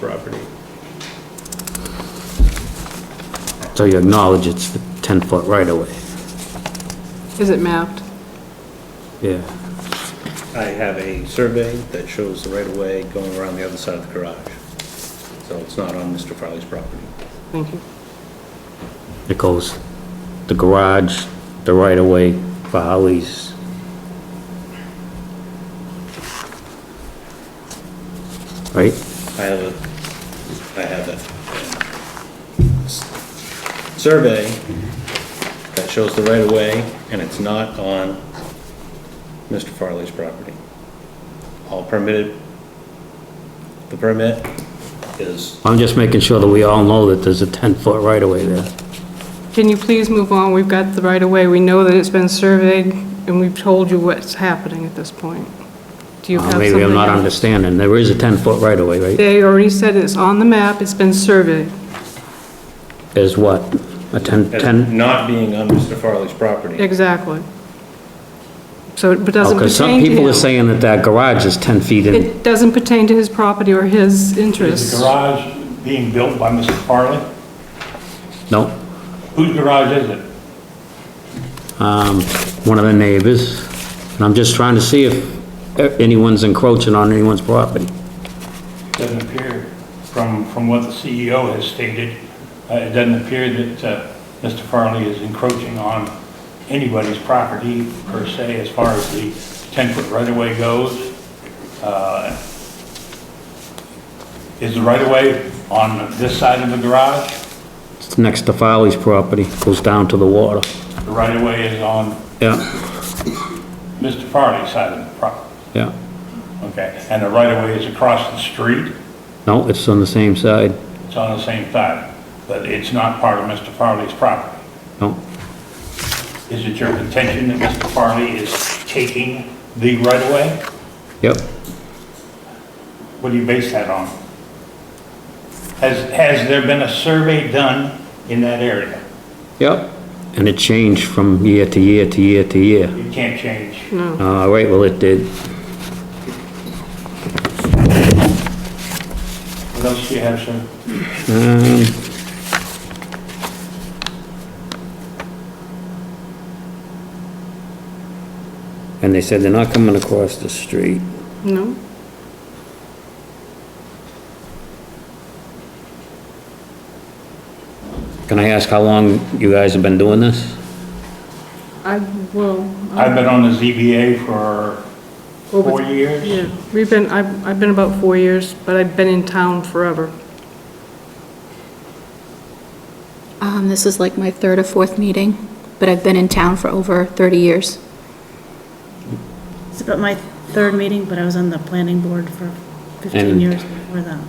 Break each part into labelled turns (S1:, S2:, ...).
S1: property.
S2: So you acknowledge it's the 10-foot right-of-way,
S3: Is it mapped?
S2: yeah.
S1: I have a survey that shows the right-of-way going around the other side of the garage. So it's not on Mr. Farley's property.
S3: Thank you.
S2: It goes the garage, the right-of-way for Holly's. Right?
S1: I have a, I have a survey that shows the right-of-way, and it's not on Mr. Farley's property. All permitted, the permit is,
S2: I'm just making sure that we all know that there's a 10-foot right-of-way there.
S3: Can you please move on? We've got the right-of-way. We know that it's been surveyed, and we've told you what's happening at this point. Do you have
S2: Uh,
S3: something?
S2: Maybe I'm not
S3: else?
S2: understanding, there is a 10-foot right-of-way, right?
S3: They already said it's on the map, it's been surveyed.
S2: Is what? A 10, 10?
S1: not being on Mr. Farley's property.
S3: Exactly. So it doesn't
S2: Because Oh, some
S3: pertain to
S2: people are
S3: him.
S2: saying that that garage is 10 feet in.
S3: It doesn't pertain to his property or his
S4: Is the
S3: interests.
S4: garage being built by Mr. Farley?
S2: No,
S4: Whose garage is it?
S2: um, one of the neighbors, and I'm just trying to see if anyone's encroaching on anyone's property.
S4: Doesn't appear, from, from what the CEO has stated, uh, it doesn't appear that uh, Mr. Farley is encroaching on anybody's property per se as far as the 10-foot right-of-way goes. Uh, Is the right-of-way on this side of the garage?
S2: It's next to Folly's property, goes down to the water.
S4: The right-of-way is on
S2: Yeah,
S4: Mr. Farley's side of the property,
S2: yeah.
S4: okay? And the right-of-way is across the street?
S2: No, it's on the same side.
S4: It's on the same side, but it's not part of Mr. Farley's property.
S2: No,
S4: Is it your contention that Mr. Farley is taking the right-of-way?
S2: yep.
S4: What do you base that on? Has, has there been a survey done in that area?
S2: Yep, and it changed from year to year to year to year.
S4: You can't change.
S2: All right, well, it did.
S4: What else do you have, sir?
S2: And they said they're not coming across the street.
S3: No?
S2: Can I ask how long you guys have been doing this?
S3: I will.
S4: I've been on the ZBA for four years.
S3: Yeah, we've been, I've, I've been about four years, but I've been in town forever.
S5: Um, this is like my third or fourth meeting, but I've been in town for over 30 years.
S6: It's about my third meeting, but I was on the planning board for 15
S2: And-
S6: years before that.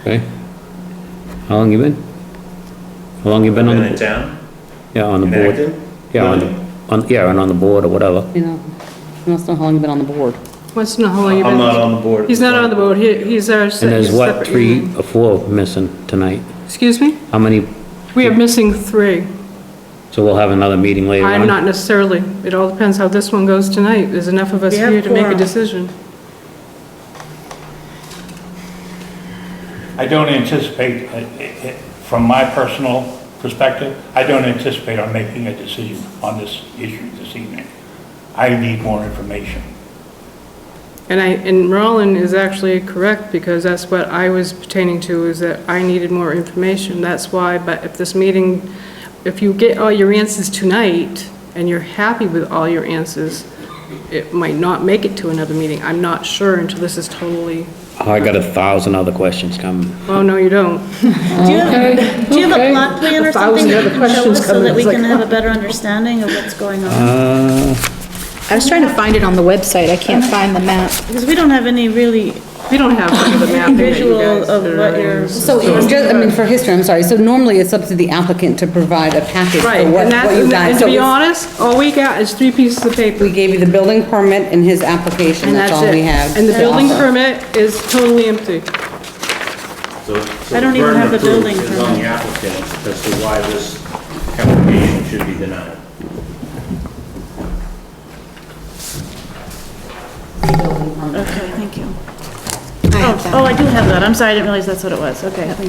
S2: Okay. How long you been? How long you been on
S1: Been in
S2: the,
S1: town,
S2: yeah, on the
S1: in
S2: board?
S1: Acton?
S2: Yeah, on, on, yeah, and on the board or whatever.
S7: You know, that's not how long you've been on the board.
S3: What's not how long you been?
S1: Uh, I'm not on the board.
S3: He's not on the board, he, he's our.
S2: And there's what, three or four missing tonight?
S3: Excuse me?
S2: How many,
S3: We are missing three.
S2: so we'll have another meeting later on?
S3: I'm not necessarily, it all depends how this one goes tonight. There's enough of us
S6: We have
S3: here to make a
S6: quorum.
S3: decision.
S4: I don't anticipate, uh, uh, uh, from my personal perspective, I don't anticipate on making a decision on this issue this evening. I need more information.
S3: And I, and Roland is actually correct, because that's what I was pertaining to, is that I needed more information, that's why, but if this meeting, if you get all your answers tonight, and you're happy with all your answers, it might not make it to another meeting, I'm not sure until this is totally,
S2: I got a thousand other questions coming.
S3: oh, no, you don't.
S6: Do you have, do you have a plot plan or
S3: A thousand
S6: something that
S3: other
S6: you can show
S3: questions
S6: us
S3: come
S6: so
S3: in,
S6: that we
S3: it's
S6: can
S3: like,
S6: have a better understanding of what's going on?
S2: Uh,
S5: I was trying to find it on the website, I can't find the map.
S6: Because we don't have any really
S3: We don't have any of the mapping that you
S6: visual
S3: guys.
S6: of
S3: did
S6: what
S3: earlier.
S6: you're.
S7: So, just, I mean, for history, I'm sorry, so normally it's up to the applicant to provide a package
S3: Right,
S7: for what,
S3: and that's,
S7: what you've done.
S3: and to
S7: So
S3: be
S7: it's-
S3: honest, all we got is three pieces of paper.
S7: We gave you the building permit and his application,
S3: And
S7: that's all
S3: it.
S7: we have.
S3: And the
S7: to
S3: building
S7: offer.
S3: permit is totally empty.
S6: I don't even have the building
S1: Is on the
S6: permit.
S1: applicant as to why this application should be denied.
S6: Okay, thank you.
S5: I have that.
S6: Oh, I do have that, I'm sorry, I didn't realize that's what it was, okay, thank you.